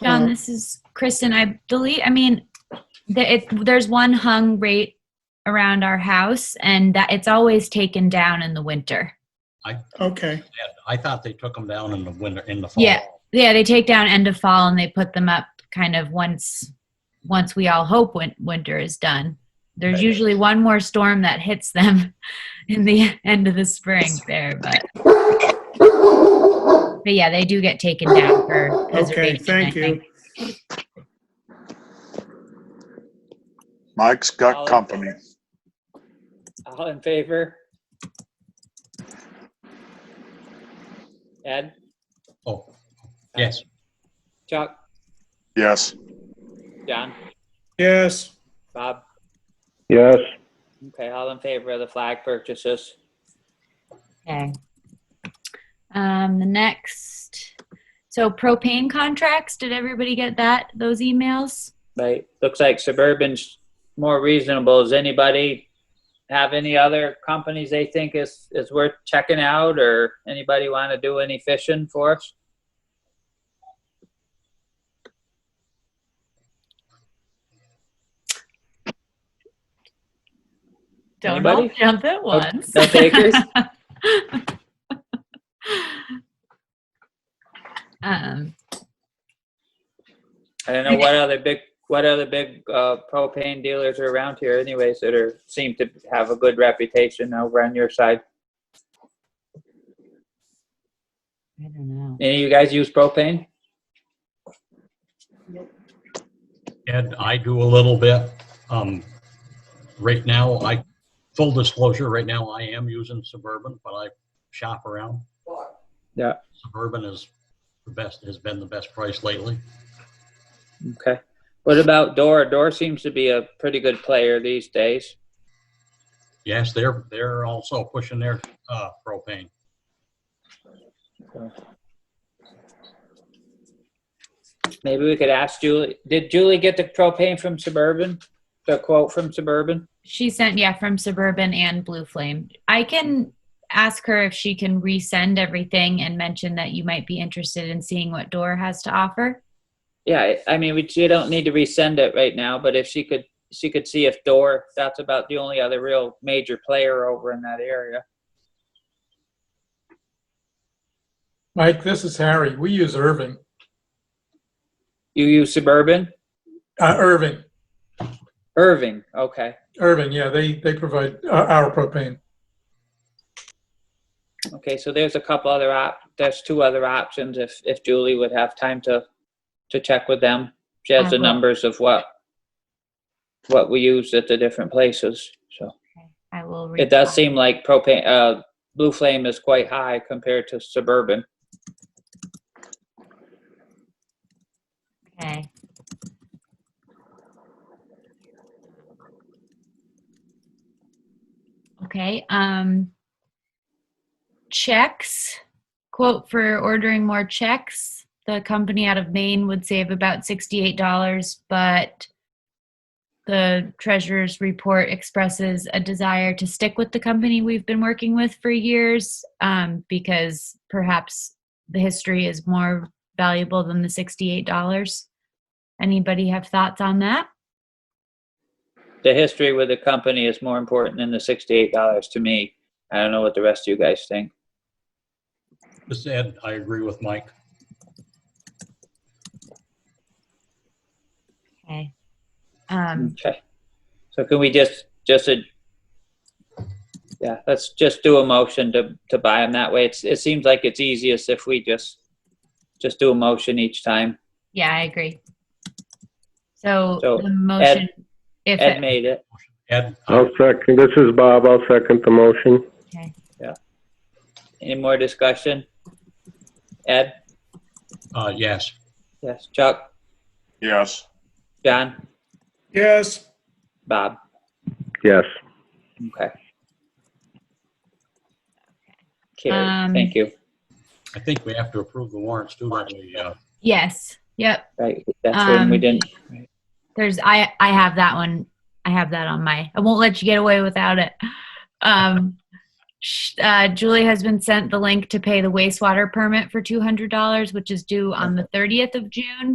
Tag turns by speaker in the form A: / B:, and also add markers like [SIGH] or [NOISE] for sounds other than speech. A: Um,
B: John, this is Kristen. I believe, I mean, the, it, there's one hung right around our house and that it's always taken down in the winter.
A: Okay,
C: I thought they took them down in the winter, in the fall.
B: Yeah. Yeah, they take down end of fall and they put them up kind of once, once we all hope win- winter is done. There's
C: Okay.
B: usually one more storm that hits them [LAUGHS] in the end of the spring there, but. But yeah, they do get taken down for
A: okay,
B: preservation, I
A: thank
B: think.
A: you.
D: Mike's got company.
E: All in favor? Ed?
C: Oh, yes,
E: Chuck?
D: Yes,
E: John?
A: Yes,
E: Bob?
F: Yes,
E: Okay, all in favor of the flag purchases?
B: Okay. Um, the next, so propane contracts, did everybody get that, those emails?
E: Right, looks like Suburban's more reasonable. Does anybody have any other companies they think is, is worth checking out or anybody want to do any fishing for us?
B: Don't all
E: Anybody?
B: jump at once. [LAUGHS]
E: No takers?
B: Um,
E: I don't know what other big, what other big uh, propane dealers are around here anyways that are, seem to have a good reputation over on your side.
B: I don't know.
E: Any of you guys use propane?
C: Ed, I do a little bit. Um, right now, I, full disclosure, right now I am using Suburban, but I shop around.
E: Yeah.
C: Suburban is the best, has been the best price lately.
E: Okay. What about Door? Door seems to be a pretty good player these days.
C: Yes, they're, they're also pushing their, uh, propane.
E: Maybe we could ask Julie. Did Julie get the propane from Suburban? The quote from Suburban?
B: She sent, yeah, from Suburban and Blue Flame. I can ask her if she can resend everything and mention that you might be interested in seeing what Door has to offer.
E: Yeah, I I mean, we, you don't need to resend it right now, but if she could, she could see if Door, that's about the only other real major player over in that area.
G: Mike, this is Harry. We use Irving,
E: You use Suburban?
G: uh, Irving,
E: Irving, okay,
G: Irving. Yeah, they, they provide uh, our propane.
E: okay, so there's a couple other op, there's two other options if, if Julie would have time to, to check with them. She has the
B: Mhm.
E: numbers of what, what we use at the different places, so.
B: I will. reach
E: It does
B: out.
E: seem like propane, uh, Blue Flame is quite high compared to Suburban.
B: Okay. Okay, um, checks, quote for ordering more checks. The company out of Maine would save about sixty-eight dollars, but the treasurer's report expresses a desire to stick with the company we've been working with for years, um, because perhaps the history is more valuable than the sixty-eight dollars. Anybody have thoughts on that?
E: The history with the company is more important than the sixty-eight dollars to me. I don't know what the rest of you guys think.
C: This Ed, I agree with Mike.
B: Okay. Um,
E: Okay. So can we just, just a, yeah, let's just do a motion to, to buy them that way. It's, it seems like it's easiest if we just, just do a motion each time.
B: yeah, I agree. So
E: So,
B: the motion, if,
E: Ed
B: it-
E: made it.
C: Ed,
F: I'll second, this is Bob, I'll second the motion.
E: Any more discussion? Ed?
C: uh, yes,
E: Yes. Chuck?
D: yes,
E: John?
A: yes,
E: Bob?
F: Yes.
E: Okay. Carrie,
B: Um,
E: thank you.
C: I think we have to approve the warrants too, don't we? Uh,
B: yes, yep,
E: Right, that's when we
B: um,
E: didn't,
B: there's, I, I have that one. I have that on my, I won't let you get away without it. Um, [LAUGHS] sh- uh, Julie has been sent the link to pay the wastewater permit for $200, which is due on the 30th of June.